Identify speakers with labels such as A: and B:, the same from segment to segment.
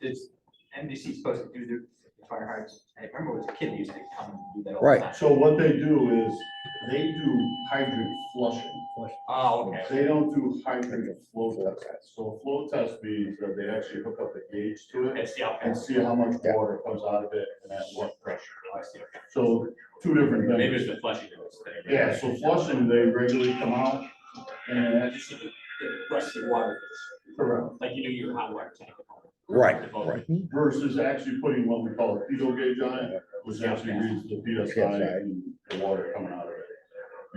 A: Is NBC supposed to do their fire hydrants? I remember it was a kid used to come and do that all
B: Right.
A: the time.
C: So what they do is, they do hydrant flushing.
A: Oh, okay.
C: They don't do hydrant flow test. So flow test means that they actually hook up a gauge to
A: Okay,
C: it
A: see, okay.
C: and see how much
B: Yeah.
C: water comes out of it and at what pressure.
A: I see, okay.
C: So two different
A: Maybe
C: things.
A: it's the flushing. that was there.
C: Yeah, so flushing, they regularly come out
A: I
C: and.
A: just see the the rusty water,
C: Correct.
A: like you do your hot water tank.
B: Right, right.
C: Versus actually putting what we call a fetal gauge on it, which actually reads the PSI and the water coming out of it.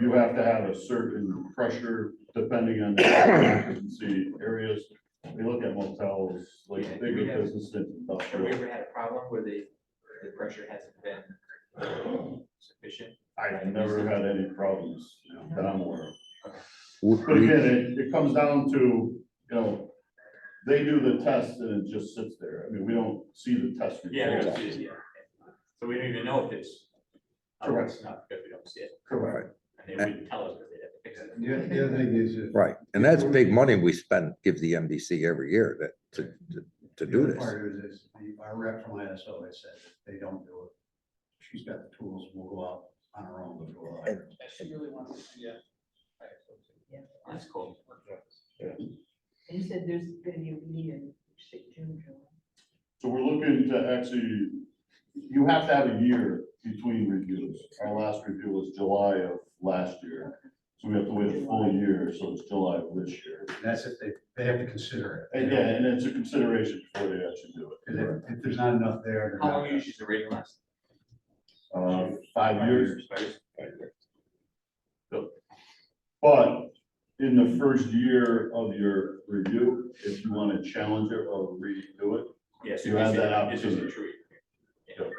C: You have to have a certain pressure depending on the occupancy areas. We look at motels, like bigger businesses,
A: Have we
C: industrial.
A: ever had a problem where the, the pressure hasn't been sufficient?
C: I've never had any problems that I'm aware of.
B: W-
C: But
B: we-
C: again, it, it comes down to, you know, they do the test and it just sits there. I mean, we don't see the test.
A: Yeah, we
C: results.
A: don't see it, yeah. So we don't even know if it's. uh,
C: Correct.
A: It's not because we don't see it,
C: Correct.
A: and they wouldn't tell us because they'd have to fix it.
D: The other- the other thing is. if-
B: Right, and that's big money we spend, give the MDC every year that, to, to- to do
D: The other
B: this.
D: part is, is the- our rep from ISO has said if they don't do it. She's got the tools, we'll go out on our own, we'll go out.
B: And-
A: That's cool.
E: And you said there's gonna be a meeting, June, July.
C: So we're looking to actually, you have to have a year between reviews. Our last review was July of last year. So we have to wait a full year, so it's July of this year.
D: That's if they, they have to consider it.
C: And yeah, and it's a consideration before they actually do
D: Cause if, if there's not enough there. they're
A: How
D: not
A: long
D: gonna-
A: usually the rating last?
C: it. Uh, five years.
A: Five years.
C: But in the first year of your review, if you want to challenge it or redo it,
A: Yes.
C: You have that
A: This is a
C: opportunity.
A: tree.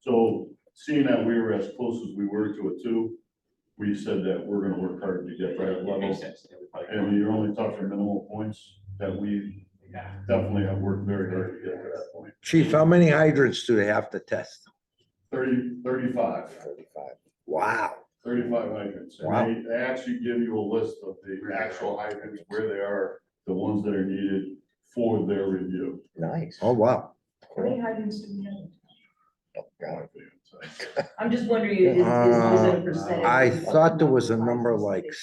C: So seeing that we were as close as we were to it too, we said that we're gonna work hard to get that
A: It makes
C: level.
A: sense. It would probably-
C: And you're only talking minimal points that we
A: Yeah.
C: definitely have worked very hard to get to that point.
B: Chief, how many hydrants do they have to test?
C: Thirty, thirty-five,
B: Wow,
C: thirty-five hydrants.
B: Wow.
C: And they, they actually give you a list of the actual hydrants, where they are, the ones that are needed for their review.
F: Nice.
B: oh, wow.
E: How many hydrants do we have?
C: It's
E: I'm just wondering, is, is is there
B: Uh,
E: a percentage?
B: I
E: of the
B: thought there
E: number
B: was a
E: of
B: number
E: hydrants
B: like
E: that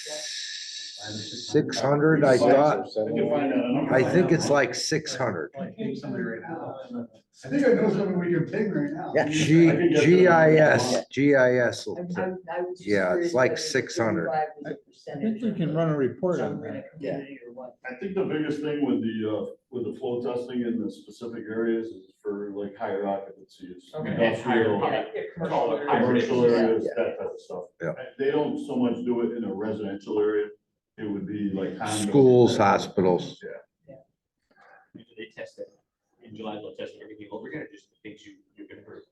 B: six hundred, I thought.
C: We can find out a number.
B: I think it's like six hundred.
D: I think somebody right now. I think I know somebody with your pig right now.
F: Yeah.
B: G,
C: I can get the-
B: GIS, GIS. will-
E: they- I- I- I was just
B: Yeah, it's
E: curious
B: like
E: whether the
B: 600.
E: 35 was
G: I
E: a percentage
G: think we
E: of
G: can
E: the
G: run a report on
E: genre in
G: that.
E: a community or what.
C: I think the biggest thing with the, uh, with the flow testing in the specific areas is for like higher occupancies.
A: Okay.
C: industrial,
A: Yeah.
E: Yeah,
A: Call it higher.
C: Commercial
E: Yeah.
C: areas, that type of stuff.
B: Yeah.
C: They don't so much do it in a residential area. It would be like. condos.
B: Schools, hospitals.
C: Yeah.
A: Usually They test it. In July, they'll test everything over again, or just the things you, you're gonna prove.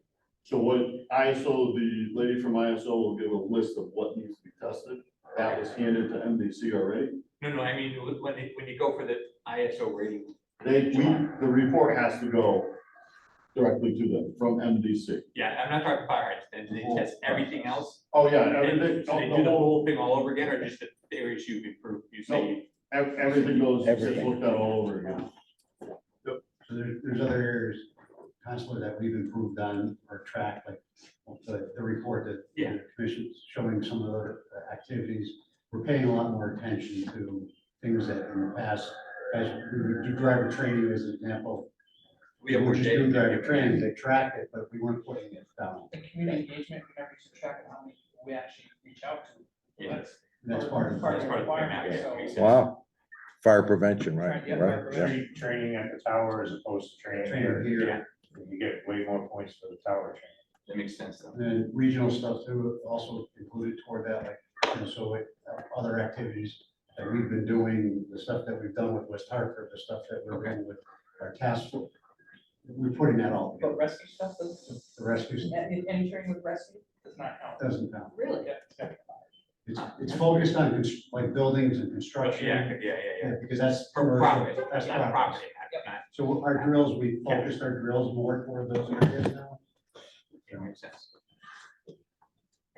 C: So what ISO, the lady from ISO will give a list of what needs to be tested. That was handed to MDC already.
A: No, no, I mean, when- when, they- when you go for the ISO rating,
C: They, we, the report has to go directly to them from MDC.
A: yeah, I'm not talking fire hydrants, then they test everything else.
C: Oh, yeah,
A: And
C: everything,
A: so they
C: the
A: do the
C: whole
A: whole thing all over again, or just the areas you've improved, you say, you-
C: Ev- Everything goes, it's
F: Everything.
C: looked at all over again.
D: So there, there's other areas constantly that we've improved on or tracked, like the, the report that. the
A: Yeah.
D: Commission's showing some of the activities, we're paying a lot more attention to things that in the past, as we would do driver training as an example.
A: we have
D: were
A: more
D: just
A: data.
D: doing
A: than
D: Driver
A: you-
D: training, they tracked it, but we weren't putting it down.
H: the community engagement, we never used to track how many we actually reach out to.
A: Yeah,
D: That's part of.
A: that's
D: the
A: part of the map, yeah, makes sense.
B: Wow. Fire prevention, right? Right. yeah.
I: Train- Training at the tower as opposed to training
D: Trainer
I: here,
D: here,
A: Yeah.
I: you get way more points for the tower training.
A: That makes sense, though.
D: and then regional stuff too, also included toward that, like, and so it, other activities that we've been doing, the stuff that we've done with West Hartford, the stuff that we're doing with our task force. We're putting that all,
H: But
D: together.
H: rescue stuff does,
D: the rescue stuff
H: any, any training with rescue does not count.
D: doesn't count.
H: Really?
D: It's, it's focused on cons- like buildings and
A: But
D: construction.
A: Yeah, yeah, yeah, yeah.
D: yeah, Because that's.
A: From profit,
D: That's
A: not
D: progress.
A: property, not,
D: So our drills, we focused our drills more toward those areas now.
A: that makes sense.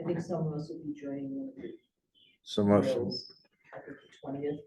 E: I think some of us will be joining one of the
B: So much.
E: drills. I think twentieth.